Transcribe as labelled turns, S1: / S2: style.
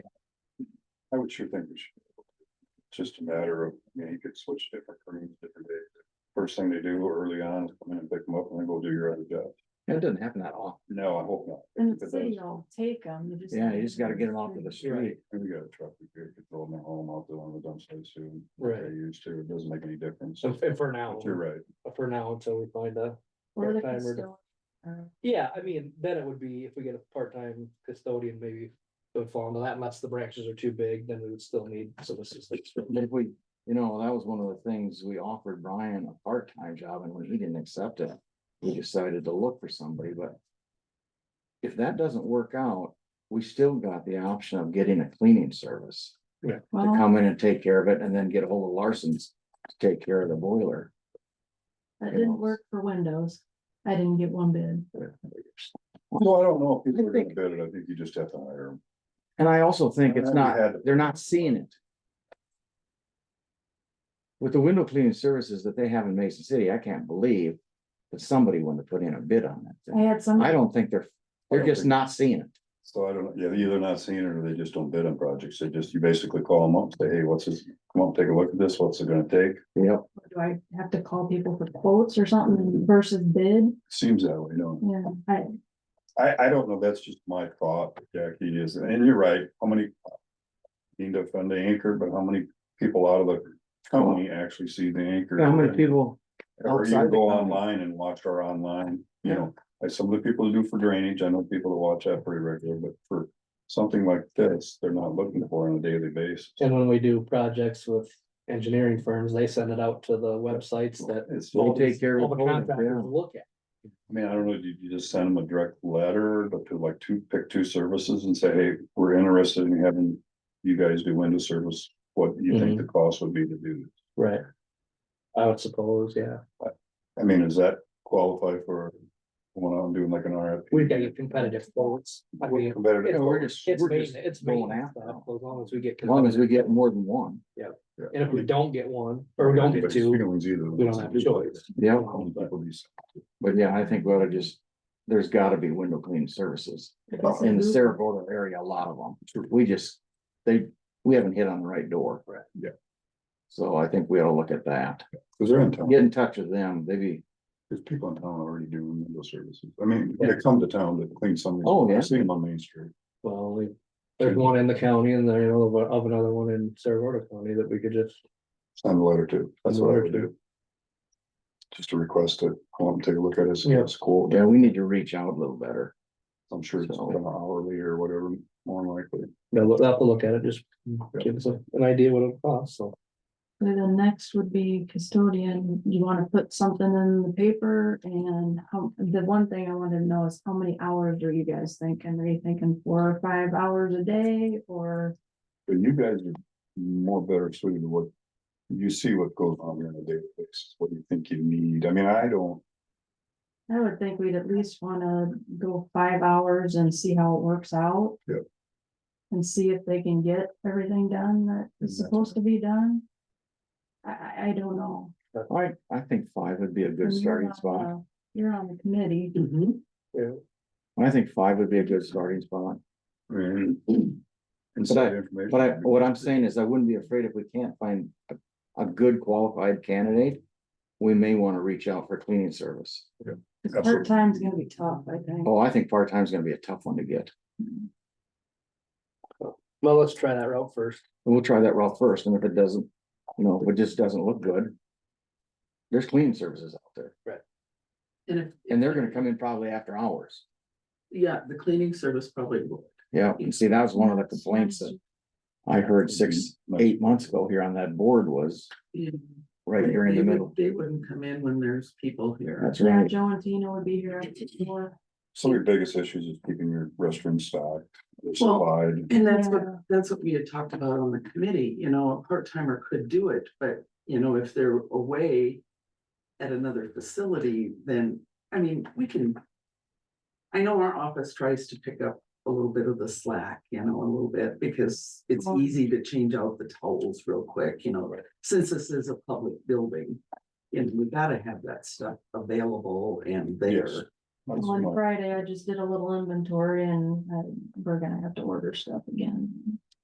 S1: I would sure think we should. It's Just a matter of, I mean, you could switch different rooms different days. First thing they do early on, is come in and pick them up and then go do your other job.
S2: It doesn't happen that often.
S1: No, I hope not.
S3: And the
S1: Because
S3: city will take them. you just.
S2: Yeah, you just gotta get them off of the street.
S1: We got a truck, we could could throw them at home, I'll throw them in the dump site soon.
S4: Right.
S1: They used to, it doesn't make any difference.
S4: So f- for now,
S1: But You're right.
S4: for now until we find a,
S3: Or the
S4: part-timer.
S3: custodian, uh,
S4: yeah, I mean, then it would be if we get a part-time custodian, maybe. It would fall into that unless the branches are too big, then we would still need some assistance.
S2: But if we, you know, that was one of the things we offered Brian a part-time job and when he didn't accept it, we decided to look for somebody, but. If that doesn't work out, we still got the option of getting a cleaning service to
S3: Well,
S2: come in and take care of it and then get a hold of Larson's to take care of the boiler.
S3: that didn't work for windows. I didn't get one bid.
S1: No, I don't know if people
S2: I
S1: are gonna
S2: think-
S1: bid it. I think you just have to hire them.
S2: And I also think it's
S1: We
S2: not,
S1: had-
S2: they're not seeing it. With the window cleaning services that they have in Mason City, I can't believe that somebody wanted to put in a bid on that
S3: I
S2: thing.
S3: had some,
S2: I don't think they're, they're just not seeing it.
S1: So I don't, yeah, either they're not seeing it or they just don't bid on projects. They just, you basically call them up, say, hey, what's this? Come on, take a look at this. What's it gonna take?
S2: Yep.
S3: do I have to call people for quotes or something versus bid?
S1: Seems that way, don't it?
S3: Yeah, I,
S1: I, I don't know, that's just my thought, Jackie, is, and you're right, how many. Need to fund the anchor, but how many people out of the company actually see the anchor?
S2: How many people?
S1: Or you
S2: outside the
S1: go
S2: company?
S1: online and watch our online, you know, like some of the people who do for drainage, I know people that watch that pretty regularly, but for. Something like this, they're not looking for on a daily basis.
S4: And when we do projects with engineering firms, they send it out to the websites that.
S1: It's, I
S2: They take care of
S4: all the
S2: the quotes, yeah.
S4: contractors Look at,
S1: mean, I don't know, did you just send them a direct letter, but to like two, pick two services and say, hey, we're interested in having. You guys do window service, what do you think the cost would be to do this?
S4: right. I would suppose, yeah,
S1: I mean, does that qualify for when I'm doing like an RFP?
S4: we've got to get competitive quotes. I mean,
S2: You know,
S1: Competitive,
S2: we're just,
S4: it's
S2: we're
S4: main,
S2: just,
S4: it's
S2: going
S4: main,
S2: after
S4: stuff, as long as we get.
S2: as long as we get more than one.
S4: And if we don't get one, or we don't get
S1: But you
S4: two,
S1: can lose either
S4: we
S1: one.
S4: don't have a choice.
S2: Yeah,
S1: Some people these-
S2: but yeah, I think we ought to just, there's gotta be window cleaning services
S3: Yes,
S2: in the
S3: mhm.
S2: Saragordo area, a lot of them. We just, they, we haven't hit on the right door.
S4: Right,
S1: yeah.
S2: So I think we ought to look at that.
S1: Cause they're in town,
S2: Get in touch with them, maybe,
S1: there's people in town already doing window services, I mean, they come to town to clean some.
S2: Oh, yeah.
S1: I've seen them on Main Street.
S4: Well, we- there's one in the county and then of, of another one in Saragordo County that we could just,
S1: Send a letter to, that's what I would do. Just a request to come up and take a look at it, see
S4: Yeah.
S1: what's cool,
S2: yeah, we need to reach out a little better.
S1: I'm sure it's
S2: So-
S1: been hourly or whatever, more than likely.
S4: they'll, look- they'll have to look at it, just give us a- an idea what it costs, so.
S3: so the next would be custodian. You wanna put something in the paper and how, the one thing I wanted to know is how many hours are you guys thinking? Are you thinking four or five hours a day or?
S1: But you guys are more better suited to what, you see what goes on here on a daily basis, what do you think you need, I mean, I don't.
S3: I would think we'd at least wanna go five hours and see how it works out.
S1: Yep.
S3: And see if they can get everything done that is
S1: Exactly.
S3: supposed to be done. I, I, I don't know.
S2: I, I think five would be a
S3: And
S2: good
S3: you're
S2: starting
S3: on
S2: spot.
S3: the- You're on the committee.
S4: Yeah,
S2: I think five would be a good starting spot.
S1: I mean,
S2: I-
S1: Inside information.
S2: Mm-hmm. But I, what I'm saying is I wouldn't be afraid if we can't find a, a good qualified candidate. We may wanna reach out for cleaning service.
S3: Part time's gonna be tough, I think.
S2: Oh, I think part-time's gonna be a tough one to get.
S4: well, let's try that route first.
S2: And We'll try that route first, and if it doesn't, you know, if it just doesn't look good. There's cleaning services out there,
S5: And if.
S2: and they're gonna come in probably after hours.
S5: Yeah, the cleaning service probably will.
S2: Yeah, and see, that was one of the complaints that I heard six, eight months ago here on that board was
S5: you know,
S2: right here in
S5: they
S2: the
S5: would-
S2: middle.
S5: They wouldn't come in when there's people here.
S2: That's
S3: Yeah,
S2: right.
S3: Joe and Tina would be here after four.
S1: Some of your biggest issues is keeping your restroom stocked, or
S5: Well-
S1: supplied.
S5: And that's what,
S3: Yeah.
S5: that's what we had talked about on the committee, you know, a part timer could do it, but you know, if they're away. At another facility, then, I mean, we can. I know our office tries to pick up a little bit of the slack, you know, a little bit, because it's
S3: Well-
S5: easy to change out the towels real quick, you know. Since this is a public building, and we gotta have that stuff available and
S1: Yes.
S5: there.
S1: That's
S3: On
S1: my-
S3: Friday, I just did a little inventory and uh, we're gonna have to order stuff again.